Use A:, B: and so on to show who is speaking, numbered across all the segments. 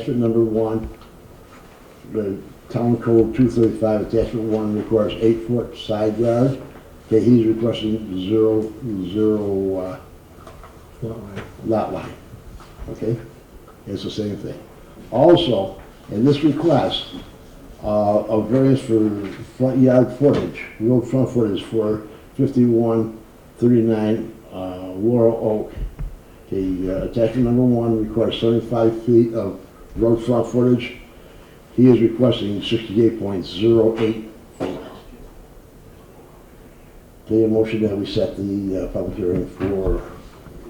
A: Attachment number one, the town code two thirty-five, attachment one requires eight-foot side yard. Okay, he's requesting zero, zero, uh, lot line, okay? It's the same thing. Also, in this request, uh, of variance for front yard footage, road front footage for fifty-one thirty-nine, uh, Laurel Oak. The uh, attachment number one requires seventy-five feet of road front footage. He is requesting sixty-eight point zero eight feet. Okay, a motion that we set the uh, public hearing for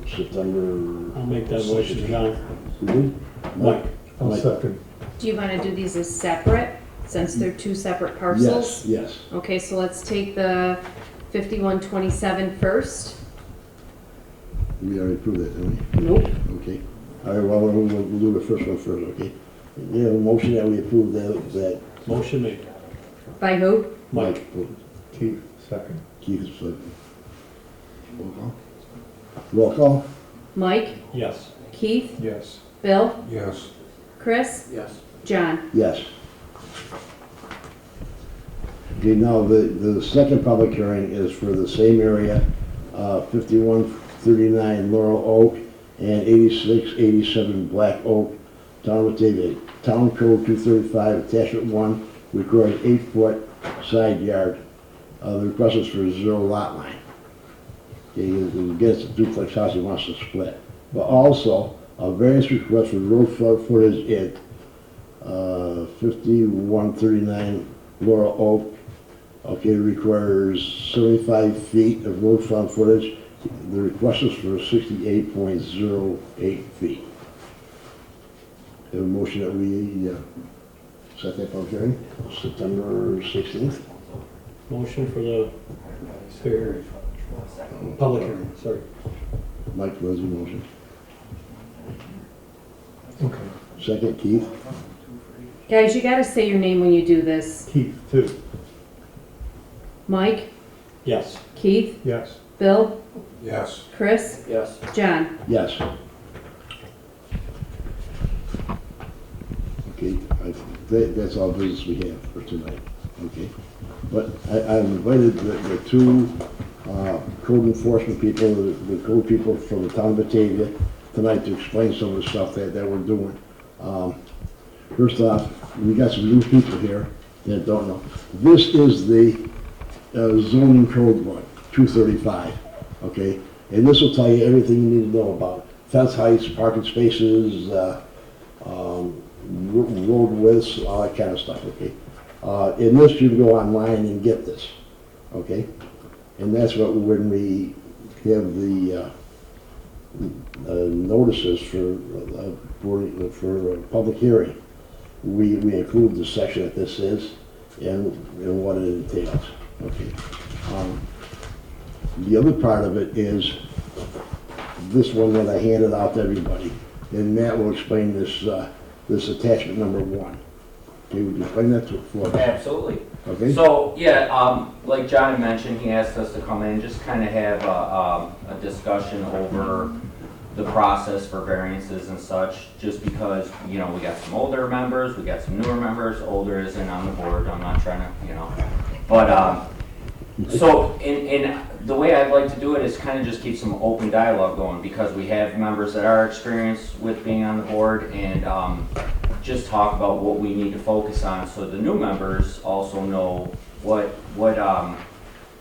A: September.
B: I'll make that motion, John.
A: Mhm.
B: Mike?
C: I'll
A: Mike.
C: second.
D: Do you want to do these as separate, since they're two separate
A: Yes,
D: parcels?
A: yes.
D: Okay, so let's take the 5127 first.
A: We already proved that, didn't we?
D: Nope.
A: Okay. All right, well, we'll, we'll do the first one first, okay? We have a motion that we approve that, that
B: Motion made.
D: By who?
B: Mike?
A: Mike,
C: Keith, second.
A: Keith is like. Roll call? Roll call?
D: Mike,
B: Yes.
D: Keith,
C: Yes.
D: Bill,
C: Yes.
D: Chris,
B: Yes.
D: John.
A: Yes. Okay, now, the, the second public hearing is for the same area, uh, fifty-one thirty-nine Laurel Oak and eighty-six eighty-seven Black Oak, Town of Batavia, Town Code two thirty-five, attachment one, requires eight-foot side yard. Uh, the request is for zero lot line. Okay, he gets a duplex house, he wants to split. But also, a variance request for road front footage at uh, 5139 Laurel Oak. Okay, requires 75 feet of road front footage. The request is for 68.08 feet. Have a motion that we uh, set that public hearing, September 16th.
B: Motion for the fair hearing. Public hearing, sorry.
A: Mike was the motion.
C: Okay.
A: Second, Keith.
D: Guys, you gotta say your name when you do this.
C: Keith, two.
D: Mike,
B: Yes.
D: Keith,
C: Yes.
D: Bill,
C: Yes.
D: Chris,
B: Yes.
D: John.
A: Yes. Okay, I, that, that's all business we have for tonight, okay? But I, I invited the, the two, uh, code enforcement people, the the code people from the town of Batavia tonight to explain some of the stuff that, that we're doing. Um, First off, we got some new people here that don't know. This is the uh, zoning code one, two thirty-five, okay? And this will tell you everything you need to know about fence heights, parking spaces, uh, um, ro- road widths, all that kind of stuff, okay? Uh, in this, you can go online and get this, okay? And that's what, when we have the, uh, uh, notices for, uh, for, for a public hearing, we, we include the section that this is and, and what it entails, okay? Um, The other part of it is this one that I handed out to everybody, and Matt will explain this, uh, this attachment number one. Okay, would you explain that to, for us,
E: Absolutely.
A: okay?
E: So, yeah, um, like John had mentioned, he asked us to come in, just kind of have a, um, a discussion over the process for variances and such, just because, you know, we got some older members, we got some newer members, older isn't on the board, I'm not trying to, you know. But, um, so, and, and the way I'd like to do it is kind of just keep some open dialogue going, because we have members that are experienced with being on the board, and, um, just talk about what we need to focus on, so the new members also know what, what, um,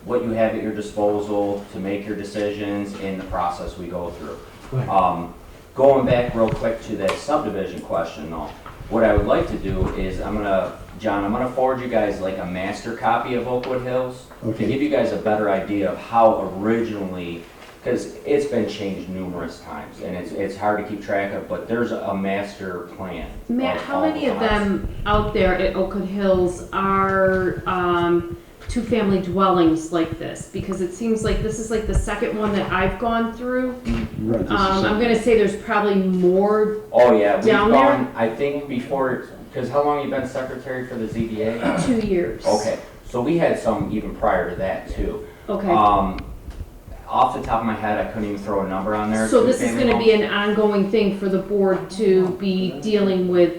E: what you have at your disposal to make your decisions and the process we go through.
B: Right.
E: Um, going back real quick to that subdivision question though, what I would like to do is, I'm gonna, John, I'm gonna forward you guys like a master copy of Oakwood Hills to
A: Okay.
E: give you guys a better idea of how originally, because it's been changed numerous times, and it's, it's hard to keep track of, but there's a master plan.
D: Matt,
E: of
D: how
E: all
D: many
E: the
D: of
E: lots.
D: them out there at Oakwood Hills are, um, two-family dwellings like this? Because it seems like this is like the second one that I've gone through.
A: Right, this is
D: Um, I'm
A: something-
D: gonna say there's probably more,
E: Oh, yeah, we've
D: Down there?
E: gone, I think before, because how long you been secretary for the ZBA?
D: two years.
E: Okay, so we had some even prior to that too.
D: Okay,
E: Um, off the top of my head, I couldn't even throw a number on there.
D: so this is
E: Two-family
D: gonna
E: homes.
D: be an ongoing thing for the board to be dealing with